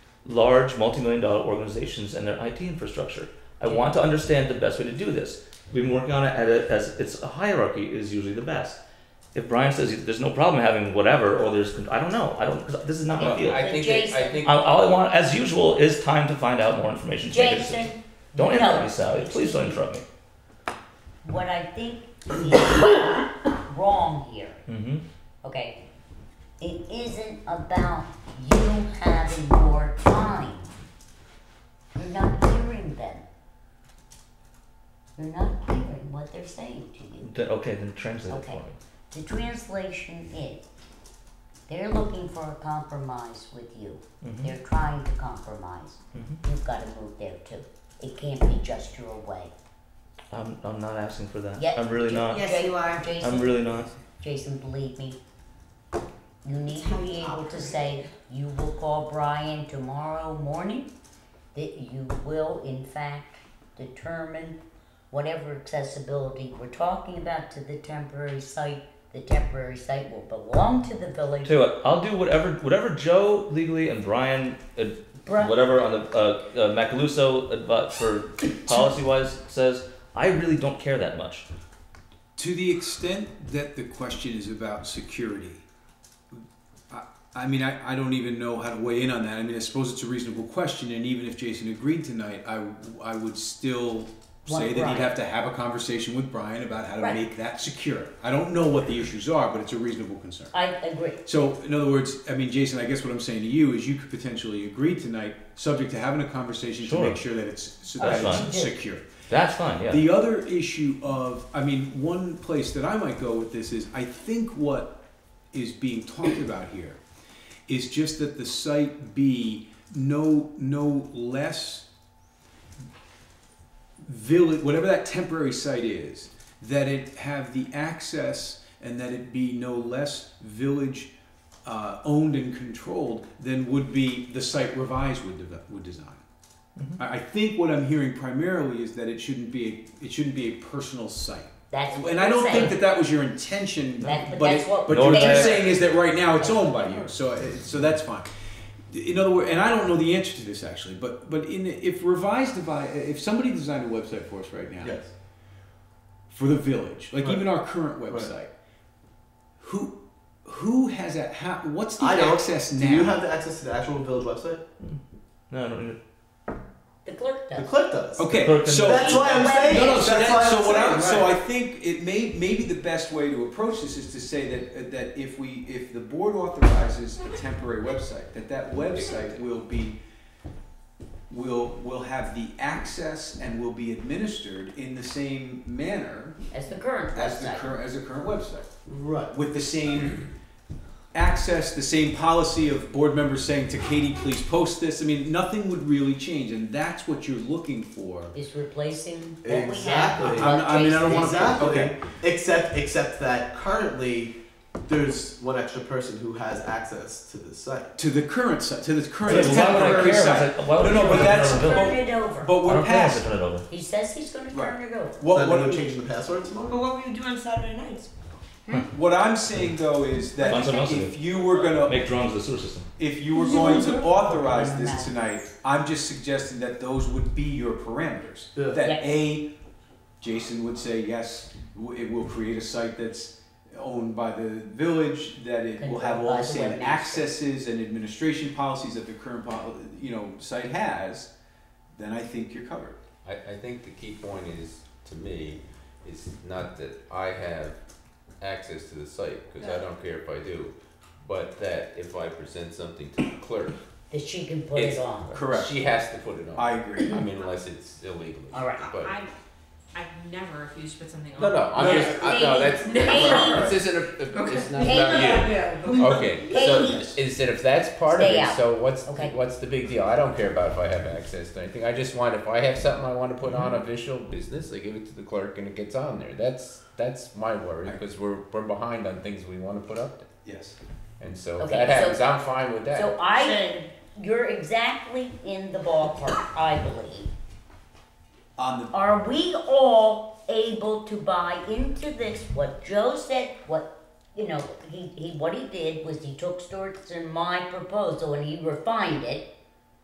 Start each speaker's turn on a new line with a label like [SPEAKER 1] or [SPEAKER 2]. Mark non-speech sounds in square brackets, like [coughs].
[SPEAKER 1] large multi-million dollar organizations and their IT infrastructure. I
[SPEAKER 2] Yeah.
[SPEAKER 1] want to understand the best way to do this. We've been working on it at a, as it's a hierarchy is usually the best. If Brian says there's no problem having whatever, or there's con- I don't know, I don't. 'cause This is not my field.
[SPEAKER 3] I think it, I think
[SPEAKER 4] Um,
[SPEAKER 1] I- all I want, as usual, is time to find out more information. to make a decision.
[SPEAKER 3] Jason,
[SPEAKER 1] Don't
[SPEAKER 3] no.
[SPEAKER 1] interrupt me, Sally. Please don't interrupt me.
[SPEAKER 3] what I think is [coughs] wrong here,
[SPEAKER 1] Mm-hmm.
[SPEAKER 3] okay? It isn't about you having more time. You're not hearing them. You're not hearing what they're saying to you.
[SPEAKER 1] Then, okay, then translate it
[SPEAKER 3] Okay.
[SPEAKER 1] for me.
[SPEAKER 3] The translation is they're looking for a compromise with you.
[SPEAKER 1] Mhm.
[SPEAKER 3] They're trying to compromise.
[SPEAKER 1] Mhm.
[SPEAKER 3] You've got to move there too. It can't be just your way.
[SPEAKER 1] I'm, I'm not asking for that.
[SPEAKER 3] Yeah.
[SPEAKER 1] I'm really not.
[SPEAKER 5] Yes,
[SPEAKER 3] Ja-
[SPEAKER 5] you are.
[SPEAKER 3] Jason,
[SPEAKER 1] I'm really not.
[SPEAKER 3] Jason, believe me. You need
[SPEAKER 5] That's how
[SPEAKER 3] to be
[SPEAKER 5] you
[SPEAKER 3] able to
[SPEAKER 5] operate.
[SPEAKER 3] say you will call Brian tomorrow morning. That you will, in fact, determine whatever accessibility we're talking about to the temporary site. The temporary site will belong to the village.
[SPEAKER 1] Tell you what, I'll do whatever whatever Joe legally and Brian uh,
[SPEAKER 3] Bri-
[SPEAKER 1] whatever on the uh, uh, Macaluso advi- for policy wise says. I really don't care that much.
[SPEAKER 4] To the extent that the question is about security, I, I mean, I, I don't even know how to weigh in on that. I mean, I suppose it's a reasonable question, and even if Jason agreed tonight, I, I would still
[SPEAKER 3] Want
[SPEAKER 4] say that
[SPEAKER 3] Brian.
[SPEAKER 4] he'd have to have a conversation with Brian about how to
[SPEAKER 3] Right.
[SPEAKER 4] make that secure. I don't know what the issues are, but it's a reasonable concern.
[SPEAKER 3] I agree.
[SPEAKER 4] So, in other words, I mean, Jason, I guess what I'm saying to you is you could potentially agree tonight, subject to having a conversation
[SPEAKER 1] Sure.
[SPEAKER 4] to make sure that it's, so
[SPEAKER 1] That's
[SPEAKER 4] that
[SPEAKER 1] fine.
[SPEAKER 4] it's secure.
[SPEAKER 1] That's fine. Yeah.
[SPEAKER 4] The other issue of, I mean, one place that I might go with this is I think what is being talked about here is just that the site be no no less village whatever that temporary site is that it have the access and that it be no less village uh, owned and controlled than would be the site revised would, deve- would design I I think what I'm hearing primarily is that it shouldn't be a, it shouldn't be a personal site,
[SPEAKER 3] That's what
[SPEAKER 4] and I don't
[SPEAKER 3] we're
[SPEAKER 4] think
[SPEAKER 3] saying.
[SPEAKER 4] that that was your intention.
[SPEAKER 3] That- but
[SPEAKER 4] but
[SPEAKER 3] that's
[SPEAKER 4] it-
[SPEAKER 3] what
[SPEAKER 4] but
[SPEAKER 1] we're
[SPEAKER 4] what you're
[SPEAKER 1] saying.
[SPEAKER 4] saying is that right now it's owned by you, so it- so that's fine. In other words, and I don't know the answer to this actually, but but in if revised devi- if somebody designed a website for us right now
[SPEAKER 2] Yes.
[SPEAKER 4] for the village, like
[SPEAKER 2] Right.
[SPEAKER 4] even our current
[SPEAKER 2] Right.
[SPEAKER 4] website, who who has that? How, what's the
[SPEAKER 2] I don't.
[SPEAKER 4] access now?
[SPEAKER 2] Do you have the access to the actual village website?
[SPEAKER 1] no, no, no.
[SPEAKER 3] The clerk
[SPEAKER 2] The
[SPEAKER 3] does.
[SPEAKER 2] clerk does.
[SPEAKER 1] Clerk
[SPEAKER 4] okay,
[SPEAKER 1] and-
[SPEAKER 4] so
[SPEAKER 2] That's why I'm saying.
[SPEAKER 4] No, no. So,
[SPEAKER 2] That's why
[SPEAKER 4] that, so what I
[SPEAKER 2] I'm
[SPEAKER 4] so I
[SPEAKER 2] saying,
[SPEAKER 4] think it may maybe the best way to approach this is to say that uh, that if we if the board authorizes a temporary website, that that website will be will will have the access and will be administered in the same manner
[SPEAKER 3] That's the current
[SPEAKER 4] as the
[SPEAKER 3] website.
[SPEAKER 4] current as the current website
[SPEAKER 2] right. Right.
[SPEAKER 4] with the same access, the same policy of board members saying to Katie, please post this. I mean, nothing would really change, and that's what you're looking for.
[SPEAKER 3] Is replacing what we
[SPEAKER 2] Exactly.
[SPEAKER 3] have.
[SPEAKER 4] I'm- I mean, I don't wanna-
[SPEAKER 2] Exactly.
[SPEAKER 4] Okay.
[SPEAKER 2] Except, except that currently, there's one extra person who has access to this site.
[SPEAKER 4] To the current site, to the
[SPEAKER 1] Why
[SPEAKER 4] current
[SPEAKER 1] would I
[SPEAKER 4] temporary
[SPEAKER 1] care?
[SPEAKER 4] site.
[SPEAKER 1] Like, why would
[SPEAKER 4] No, no,
[SPEAKER 1] I
[SPEAKER 4] but
[SPEAKER 1] care
[SPEAKER 4] that's-
[SPEAKER 1] about the
[SPEAKER 3] Turn
[SPEAKER 1] village?
[SPEAKER 3] it over.
[SPEAKER 4] But
[SPEAKER 1] I
[SPEAKER 4] we're
[SPEAKER 1] don't care if
[SPEAKER 4] past.
[SPEAKER 1] they turn it over.
[SPEAKER 3] He says he's gonna turn it over.
[SPEAKER 4] What,
[SPEAKER 2] then
[SPEAKER 4] what,
[SPEAKER 2] they're changing the password tomorrow.
[SPEAKER 5] But what were you doing Saturday nights?
[SPEAKER 4] what I'm saying though is that
[SPEAKER 1] Find something else to
[SPEAKER 4] if you were gonna,
[SPEAKER 1] Make drones the sewer system.
[SPEAKER 4] if you were going to authorize this tonight, I'm just suggesting that those would be your parameters.
[SPEAKER 2] Yeah.
[SPEAKER 4] That
[SPEAKER 3] Yes.
[SPEAKER 4] A, Jason would say, yes, w- it will create a site that's owned by the village, that it will have all the same accesses and administration policies that the current, pol- you know, site has, then I think you're covered.
[SPEAKER 6] I, I think the key point is, to me, is not that I have access to the site, because I don't care if I do, but that if I present something to the clerk,
[SPEAKER 3] That she can put it
[SPEAKER 6] It's-
[SPEAKER 3] on.
[SPEAKER 4] Correct.
[SPEAKER 6] she has to put it on.
[SPEAKER 4] I agree.
[SPEAKER 6] I mean, unless it's illegally.
[SPEAKER 3] All right.
[SPEAKER 6] But,
[SPEAKER 5] I, I've never refused to put something on.
[SPEAKER 6] no, no, I'm
[SPEAKER 4] No,
[SPEAKER 6] just, I, no,
[SPEAKER 3] [laughs]
[SPEAKER 6] that's,
[SPEAKER 5] Katie,
[SPEAKER 6] this isn't a, it's not about you. Okay, so instead if that's part of
[SPEAKER 3] Stay
[SPEAKER 6] it,
[SPEAKER 3] out.
[SPEAKER 6] so what's,
[SPEAKER 3] Okay.
[SPEAKER 6] what's the big deal? I don't care about if I have access to anything, I just want, if I have something I wanna put
[SPEAKER 3] Mm-hmm.
[SPEAKER 6] on official business, I give it to the clerk and it gets on there. That's, that's my worry,
[SPEAKER 4] Right.
[SPEAKER 6] because we're, we're behind on things we wanna put up there.
[SPEAKER 4] Yes.
[SPEAKER 6] And so if
[SPEAKER 3] Okay,
[SPEAKER 6] that
[SPEAKER 3] so-
[SPEAKER 6] happens, I'm fine
[SPEAKER 3] So
[SPEAKER 6] with that.
[SPEAKER 3] I, you're exactly in the ballpark, I believe.
[SPEAKER 4] On the
[SPEAKER 3] Are we all able to buy into this? What Joe said, what you know, he, he what he did was he took Stuart's and my proposal and he refined it